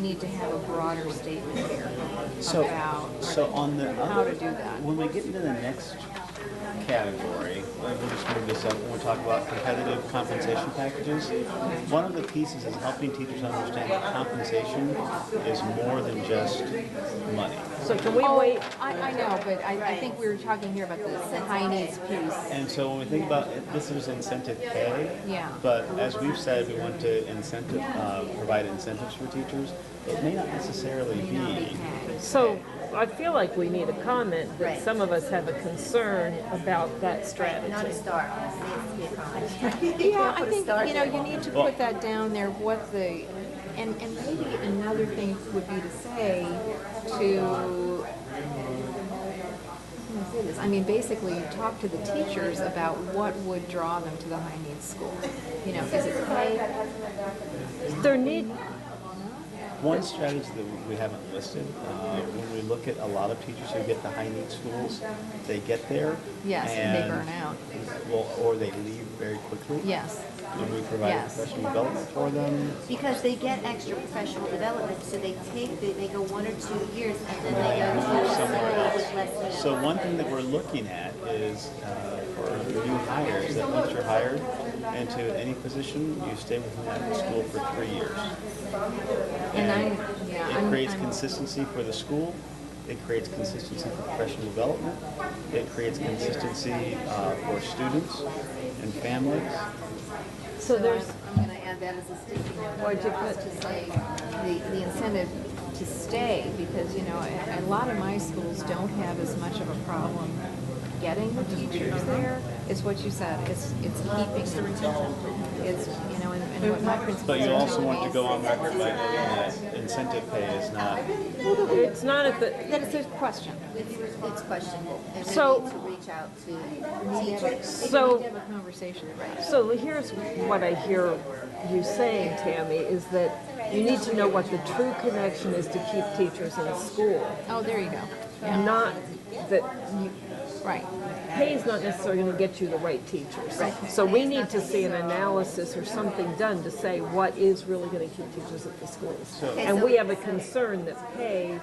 We need to have a broader statement here So, about so on the how other, to do that. when we get into the next category, we'll just move this up, when we talk about competitive compensation packages, one of the pieces is helping teachers understand that compensation is more than just money. So can we Oh, wait? I, I know, but I, I think we were talking here about the the high needs piece. And so when we think about, it, this is incentive pay. Yeah. But as we've said, we want to incentive, uh, provide incentives for teachers. It may not necessarily be So I feel like we need a comment that Right. some of us have a concern about that Not strategy. a star, it needs to be a college. Yeah, I think, you know, you need to put that down there, what the, and, and maybe another thing would be to say to, how can I say this? I mean, basically, you talk to the teachers about what would draw them to the high needs school. You know, is it pay? There need, One strategy that we haven't listed, uh, when we look at a lot of teachers who get to high need schools, they get there. Yes, and they burn out. Well, or they leave very quickly. Yes, When we provide Yes. professional development for them. Because they get extra professional development, so they take, the- they go one or two years, and then they go to somebody with less. So one thing that we're looking at is uh, for new hires, that once you're hired into any position, you stay within that school for three years. and I, yeah, I'm. It creates I'm- consistency for the school. It creates consistency for professional development. It creates consistency uh, for students and families. so there's, I'm gonna add that as a sticking note. Or to put, to say, the, the incentive to stay, because, you know, a, a lot of my schools don't have as much of a problem getting the teachers there. It's what you said, it's, it's keeping them. It's, you know, and, and what my principals But you are also telling want me to is go on record by noting that incentive pay is not, it's not at the, That is a question. It's it's questionable, and we So- need to reach out to teachers. We so, have a conversation, so here's what I hear you saying, Tammy, is that you need to know what the true connection is to keep teachers in school. Oh, there you go. Not that you, Right, pay is not necessarily going to get you the right teachers. So we need to see an analysis or something done to say what is really going to keep teachers at the schools. And we have a concern that pay,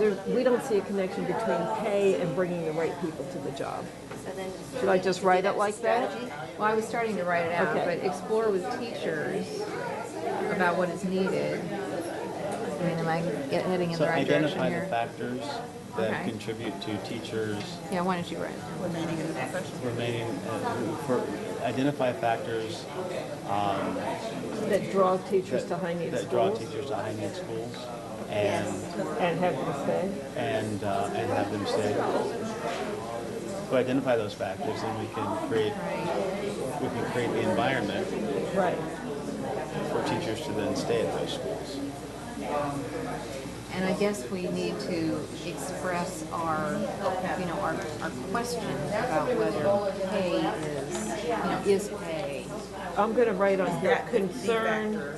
there, we don't see a connection between pay and bringing the right people to the job. So then- Should I just write it like that? well, I was starting to write it out, Okay. but explore with teachers about what is needed. I mean, am I get- heading in the so right direction identify the here? factors that Okay. contribute to teachers Yeah, why don't you write it? remaining, uh, for, identify factors That draw teachers to high need that draw schools teachers to high need schools and and have them stay. and, uh, and have them stay. We identify those factors and we can create, we can create the environment Right. for teachers to then stay at those schools. And I guess we need to express our, you know, our, our question about whether pay is, you know, is pay. I'm going to write on here, concern,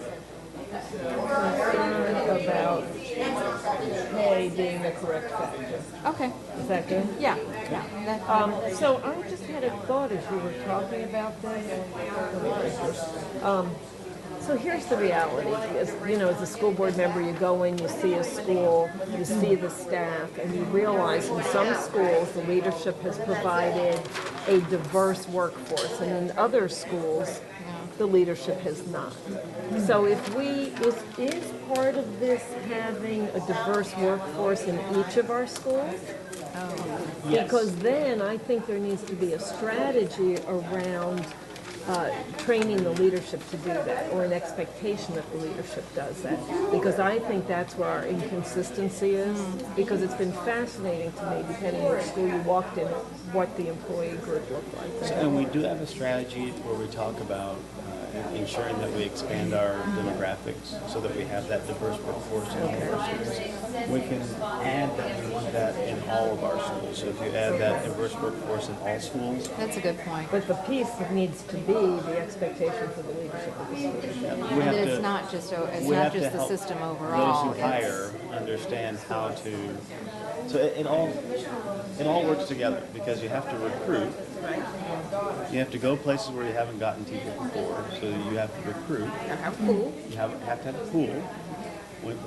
concern about pay being the correct factor. Okay, Is that good? yeah, yeah, that- Um, so I just had a thought as you were talking about this. Um, so here's the reality, is, you know, as a school board member, you go in, you see a school, you see the staff, and you realize in some schools, the leadership has provided a diverse workforce, and in other schools, the leadership has not. So if we, is, is part of this having a diverse workforce in each of our schools? Because then I think there needs to be a strategy around uh, training the leadership to do that, or an expectation that the leadership does that. Because I think that's where our inconsistency is, because it's been fascinating to me, depending on which school you walked in, what the employee group looked like. And we do have a strategy where we talk about uh, ensuring that we expand our demographics so that we have that diverse workforce in all of our schools. We can add that, we want that in all of our schools. So if you add that diverse workforce in all schools, that's a good point. But the piece that needs to be the expectation for the leadership of the school. we have And to. that it's not just, o- it's we not have to just the help system overall. Those who it's- hire understand how to. So it, it all it all works together because you have to recruit. You have to go places where you haven't gotten people before, so you have to recruit. You have, have to have a pool. when-